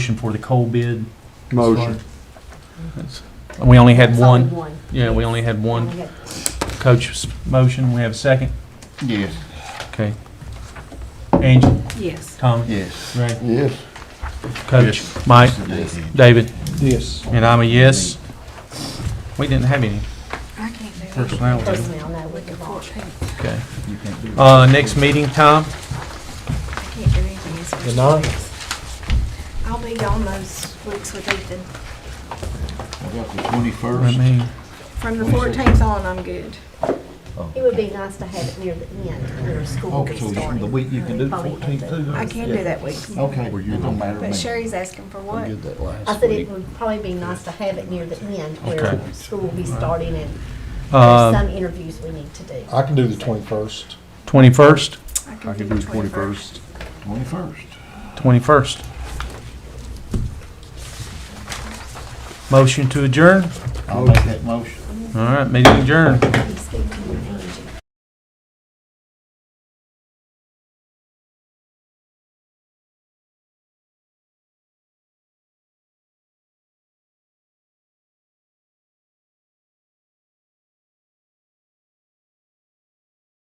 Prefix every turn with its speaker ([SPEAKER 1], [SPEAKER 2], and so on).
[SPEAKER 1] motion for the coal bid?
[SPEAKER 2] Motion.
[SPEAKER 1] We only had
[SPEAKER 3] It's
[SPEAKER 1] one,
[SPEAKER 3] only One.
[SPEAKER 1] yeah, we only had
[SPEAKER 3] We
[SPEAKER 1] one
[SPEAKER 3] had
[SPEAKER 1] coach's motion. We have a second.
[SPEAKER 2] Yes.
[SPEAKER 1] Okay. Angel,
[SPEAKER 3] Yes.
[SPEAKER 1] Tommy,
[SPEAKER 2] Yes.
[SPEAKER 1] Ray,
[SPEAKER 2] Yes.
[SPEAKER 1] Coach, Mike,
[SPEAKER 2] Yes.
[SPEAKER 1] David,
[SPEAKER 4] Yes.
[SPEAKER 1] and I'm a yes. We didn't have any
[SPEAKER 5] I can't do it.
[SPEAKER 1] personnel. did we?
[SPEAKER 3] Personnel, no, we could all.
[SPEAKER 1] Okay. Uh, next meeting time?
[SPEAKER 5] I can't do anything. It's first
[SPEAKER 4] The ninth?
[SPEAKER 5] weeks. I'll be on those weeks with Ethan.
[SPEAKER 2] I got the
[SPEAKER 1] I
[SPEAKER 2] twenty-first.
[SPEAKER 1] mean,
[SPEAKER 5] From the fourteenth on, I'm good.
[SPEAKER 3] It would be nice to have it near the end, near school
[SPEAKER 2] Oh. Okay, so
[SPEAKER 3] restarting.
[SPEAKER 2] the week you can do the
[SPEAKER 3] Probably have to-
[SPEAKER 4] 14th too,
[SPEAKER 5] I can do that week.
[SPEAKER 2] Okay, well, you don't matter to
[SPEAKER 5] But
[SPEAKER 2] me.
[SPEAKER 5] Sherry's asking for what?
[SPEAKER 3] I said it would probably be nice to have it near the end
[SPEAKER 1] Okay.
[SPEAKER 3] where school will be starting and there's
[SPEAKER 1] Uh,
[SPEAKER 3] some interviews we need to do.
[SPEAKER 4] I can do the 21st.
[SPEAKER 1] twenty-first,
[SPEAKER 5] I can do the twenty-first.
[SPEAKER 2] Twenty-first.
[SPEAKER 1] twenty-first. Motion to adjourn?
[SPEAKER 2] I'll make that motion.
[SPEAKER 1] All right, meeting adjourned.